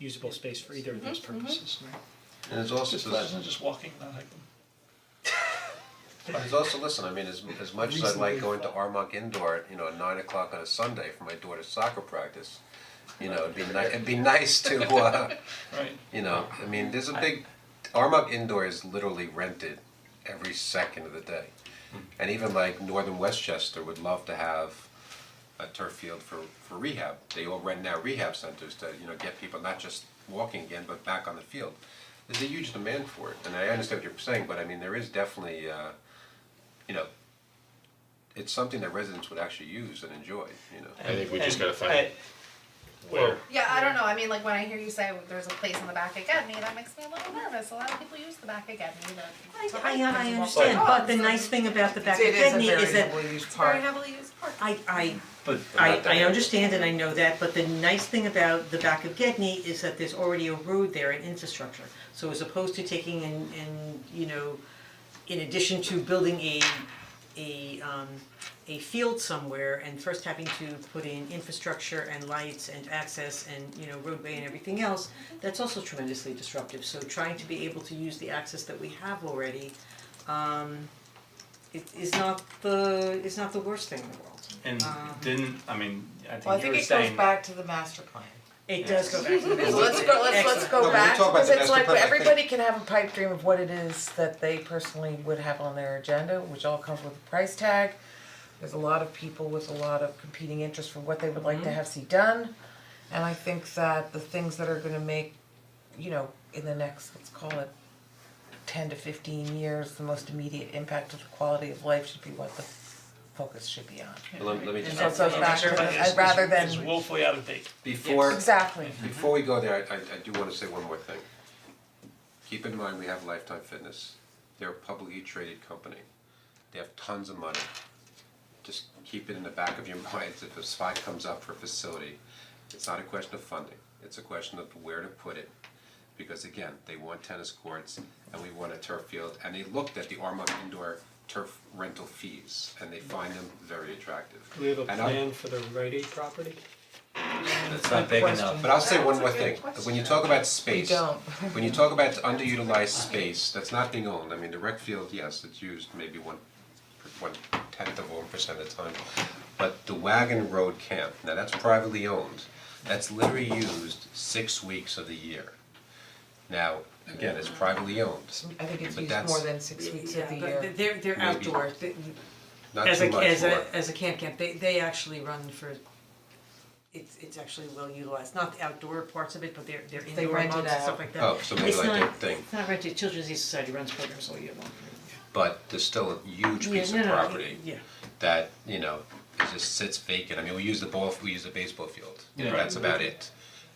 usable space for either of those purposes. And it's also, It's pleasant, just walking, I like them. it's also, listen, I mean, as as much as I like going to Armonk Indoor, at, you know, at nine o'clock on a Sunday for my daughter's soccer practice, you know, it'd be ni- it'd be nice to, uh, right, you know, I mean, there's a big, Armonk Indoor is literally rented every second of the day. Hmm. And even like Northern Westchester would love to have a turf field for for rehab. They all rent now rehab centers to, you know, get people not just walking again, but back on the field. There's a huge demand for it, and I understand what you're saying, but I mean, there is definitely, uh, you know, it's something that residents would actually use and enjoy, you know. I think we just And- gotta find I- where, Yeah, I don't know, I mean, like, when I hear you say there's a place in the back again, me, that makes me a little nervous, a lot of people use the back again, me, I, to. to I, hike I and to walk understand, their but dogs, the and nice thing about the back of It is a Kidney is very that heavily used It's a park. very heavily used park. I, I, but They're I, not that I area. understand and I know that, but the nice thing about the back of Gedney is that there's already a road there and infrastructure. So as opposed to taking and, and, you know, in addition to building a, a, um, a field somewhere and first having to put in infrastructure and lights and access and, you know, roadway and everything else, that's also tremendously disruptive. So trying to be able to use the access that we have already, um, it is not the, is not the worst thing in the world. And didn't, I mean, I Uh, Well, I think you think were it goes saying, back to the master plan. It does go back to the So building. let's go, let's, let's No, Excellent. go when we back, talk about because the it's master like, plan, I think- everybody can have a pipe dream of what it is that they personally would have on their agenda, which all comes with a price tag. There's a lot of people with a lot of competing interests for what they would like to have see done. And I think that the things that are gonna make, you know, in the next, let's call it ten to fifteen years, the most immediate impact of the quality of life should be what the focus should be on. Let me- let me just- So it goes back to, Everybody is- I'd rather than, is woefully out of date. Before, exactly. Mm-hmm. Before we go there, I I I do wanna say one more thing. Keep in mind, we have Lifetime Fitness, they're a publicly traded company, they have tons of money. Just keep it in the back of your minds, if a spot comes up for a facility, it's not a question of funding, it's a question of where to put it. Because again, they want tennis courts and we want a turf field, and they looked at the Armonk indoor turf rental fees, and they find them very attractive. Do we have a And I'm- plan for the Rite Aid property? it's not big enough, but I'll say one more thing, when you talk about space, We don't. when you talk about underutilized space, that's not being owned, I mean, the rec field, yes, it's used maybe one, one tenth of one percent of the time. But the Wagon Road Camp, now that's privately owned, that's literally used six weeks of the year. Now, again, it's privately owned, I think it's But used that's- more than six weeks of the Yeah, year. but they're they're Maybe. outdoor, They- not as too a much as more. a as a camp camp, they they actually run for it's it's actually well utilized, not the outdoor parts of it, but they're they're They indoor rent it months and out. stuff like that. Oh, so maybe It's like not- that thing. It's not rented, Children's Aid Society runs programs all year long. but there's still a huge piece Yeah, of no, no, property yeah. that, you know, it just sits vacant, I mean, we use the ball, we use the baseball field, you know, Right. that's about it.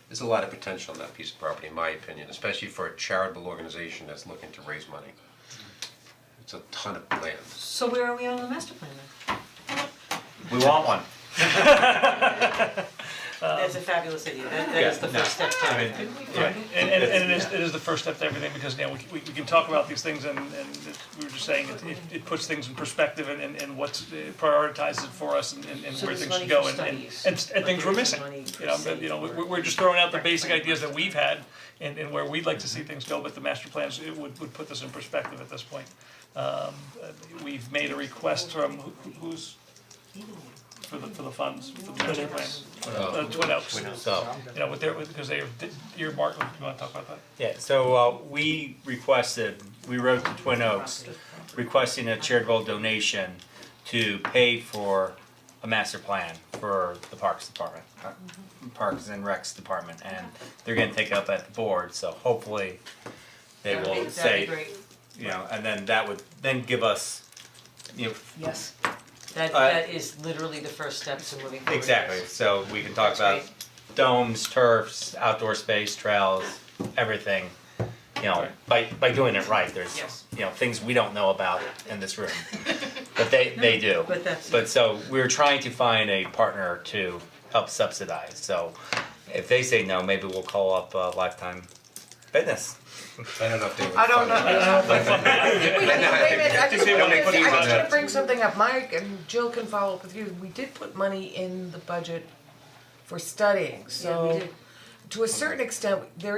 There's a lot of potential in that piece of property, in my opinion, especially for a charitable organization that's looking to raise money. It's a ton of land. So where are we on the master plan then? we want one. That's a fabulous idea, that that is the no, first step to I mean, it. Right, and and and it is, it is the first step to everything, because now we c- we we can talk about these things and and it- we were just saying, it it it puts things in perspective and and and what's it prioritizes it for us and and and So where there's things money should go for and and and studies, s- and but things we're there's missing. money for You know, but, you know, we safety we- we're just throwing out the basic ideas that we've had and and where we'd like to see things go, but the master plans, it would would put this in perspective at this point. Um uh, we've made a request from who who's for the for the funds, for the master plan, uh Twin Oaks so, you know, with their, with, because they, your mark, you wanna talk about that? Yeah, so uh we requested, we wrote to Twin Oaks requesting a charitable donation to pay for a master plan for the Parks Department, uh, Mm-hmm. Parks and Recs Department, and they're gonna take it up at the board, so hopefully they will say, you know, and then that would then give us, you know, Yes, that Uh, that is literally the first step to moving forward. Exactly, so we can talk about That's domes, turfs, outdoor space, trails, everything. You know, by by doing it right, Yes. there's, you know, things we don't know about in this room, but they they do. but that's- But so we're trying to find a partner to help subsidize, so if they say no, maybe we'll call up uh, Lifetime Fitness. I don't know if they would. I don't fund know, it. I don't know. if I- Wait, wait, wait, wait, I just They don't make wanted to- I fees on was that. gonna bring something up, Mike and Jill can follow up with you, we did put money in the budget for studying, Yeah, we so did. to a certain extent, there